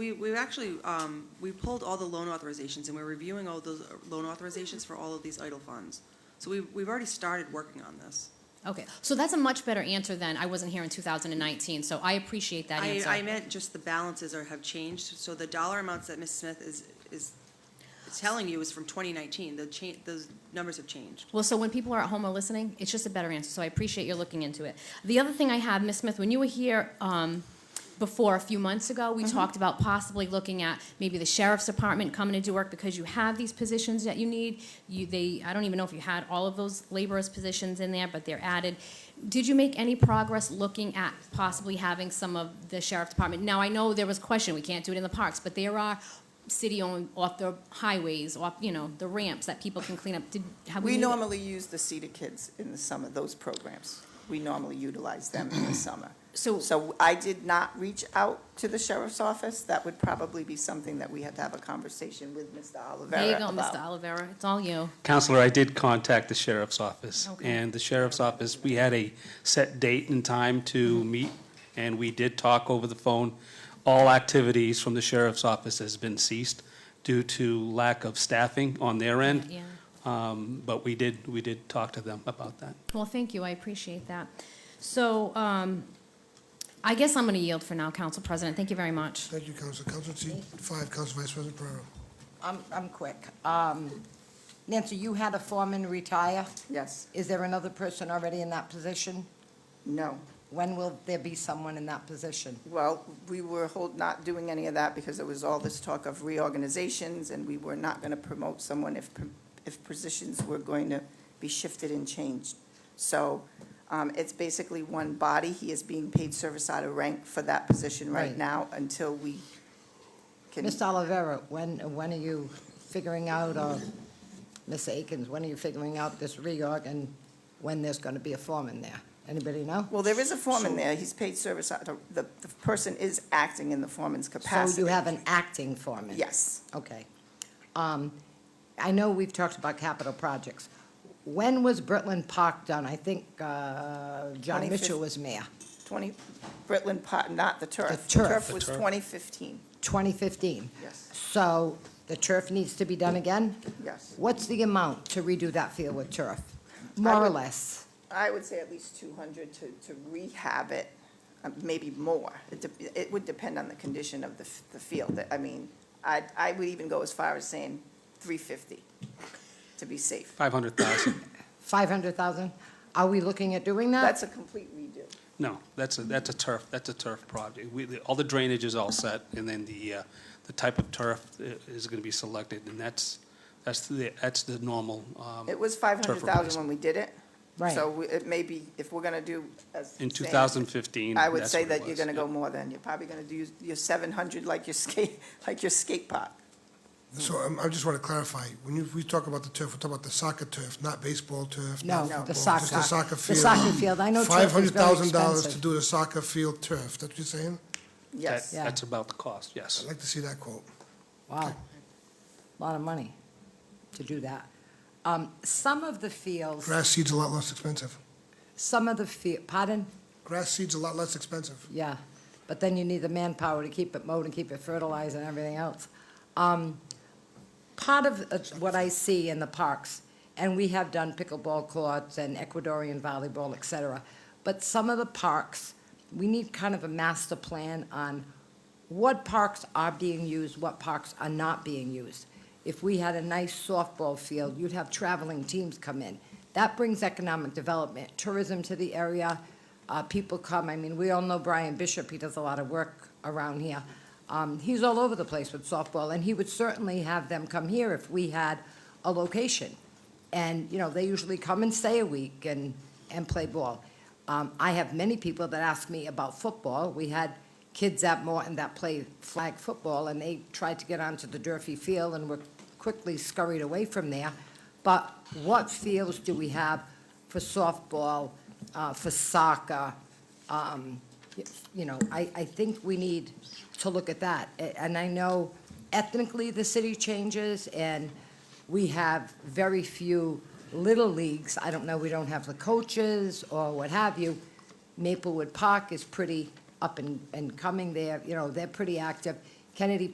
We, we actually, um, we pulled all the loan authorizations, and we're reviewing all those uh, loan authorizations for all of these idle funds. So we, we've already started working on this. Okay, so that's a much better answer than, I wasn't here in 2019, so I appreciate that I, I answer. meant just the balances are, have changed, so the dollar amounts that Ms. Smith is, is telling you is from twenty nineteen, the cha, those numbers have changed. Well, so when people are at home or listening, it's just a better answer, so I appreciate you looking into it. The other thing I have, Ms. Smith, when you were here um, before, a few months ago, we talked about possibly looking at maybe the sheriff's department coming to do work because you have these positions that you need. You, they, I don't even know if you had all of those laborers' positions in there, but they're added. Did you make any progress looking at possibly having some of the sheriff's department? Now, I know there was question, we can't do it in the parks, but there are city-owned, off the highways, off, you know, the ramps that people can clean up. Did, have we? We made- normally use the Cedar Kids in the summer, those programs. We normally utilize them in the summer. So, So I did not reach out to the sheriff's office. That would probably be something that we had to have a conversation with Mr. there you Olivera go, about. Mr. Olivera, it's all you. Counselor, I did contact the sheriff's office, Okay. and the sheriff's office, we had a set date and time to Mm-hmm. meet, and we did talk over the phone. All activities from the sheriff's office has been ceased due to lack of staffing on their end, Yeah, um, but we did, we did talk to them about that. well, thank you, I appreciate that. So, um, I guess I'm gonna yield for now, Council President, thank you very much. Thank you, Counsel. Counsel seat five, Counsel Vice President Pereira. I'm, I'm quick. Um, Nancy, you had a foreman retire. Yes, Is there another person already in that position? no. When will there be someone in that position? Well, we were hold, not doing any of that because there was all this talk of reorganizations and we were not going to promote someone if, pr- if positions were going to be shifted and changed. So um, it's basically one body. He is being paid service out of rank for that position right Right. now until we can. Ms. Olivera, when, when are you figuring out, or Ms. Akins, when are you figuring out this reorg and when there's going to be a foreman there? Anybody know? Well, there is a foreman there. He's paid service out of, the, the person is acting in the foreman's capacity. So you have an acting foreman? Yes. Okay. Um, I know we've talked about capital projects. When was Britland Park done? I think uh, John 25th. Mitchell was mayor. Twenty, Britland Pot, not the turf. The turf. was The turf. twenty fifteen. 2015. Yes. So the turf needs to be done again? Yes. What's the amount to redo that field with turf? More or would- less? I would say at least two hundred to, to rehab it, uh, maybe more. It, dep- it would depend on the condition of the, f- the field. I mean, I, I would even go as far as saying three fifty to be safe. Five hundred thousand, 500,000? Are we looking at doing that? That's a complete redo. no, that's a, that's a turf, that's a turf project. We, the- all the drainage is all set, and then the, uh, the type of turf i- is gonna be selected, and that's, that's the, that's the normal, um, It was five hundred thousand when replacement. we did it. Right. So we- it may be, if we're gonna do. as in saying- two thousand fifteen, I would say that you're gonna go more than, you're probably gonna do your seven hundred like your skate, like your skate park. So um, I just want to clarify, when you, we talk about the turf, we're talking about the soccer turf, not baseball turf, No, not the football. soccer. Just the soccer The field. soccer field. I know turf is very Five hundred thousand dollars to expensive. do the soccer field turf, that's what you're saying? Yes. Yeah. That's about the cost, yes. I'd like to see that quote. Wow. a Lot of money to do that. Um, Some of the fields, Grass seed's a lot less expensive. some of the field, pardon? Grass seed's a lot less expensive. Yeah, but then you need the manpower to keep it mowed and keep it fertilized and everything else. Um, Part of uh, what I see in the parks, and we have done pickleball courts and Ecuadorian volleyball, et cetera, but some of the parks, we need kind of a master plan on what parks are being used, what parks are not being used. If we had a nice softball field, you'd have traveling teams come in. That brings economic development, tourism to the area, uh, people come, I mean, we all know Brian Bishop, he does a lot of work around here. Um, he's all over the place with softball, and he would certainly have them come here if we had a location. And, you know, they usually come and stay a week and, and play ball. Um, I have many people that ask me about football. We had kids at Morton that play flag football, and they tried to get onto the Durfee field and were quickly scurried away from there. But what fields do we have for softball, uh, for soccer? Um, y- You know, I, I think we need to look at that. A- And I know ethnically, the city changes, and we have very few little leagues. I don't know, we don't have the coaches or what have you. Maplewood Park is pretty up and, and coming there, you know, they're pretty active. Kennedy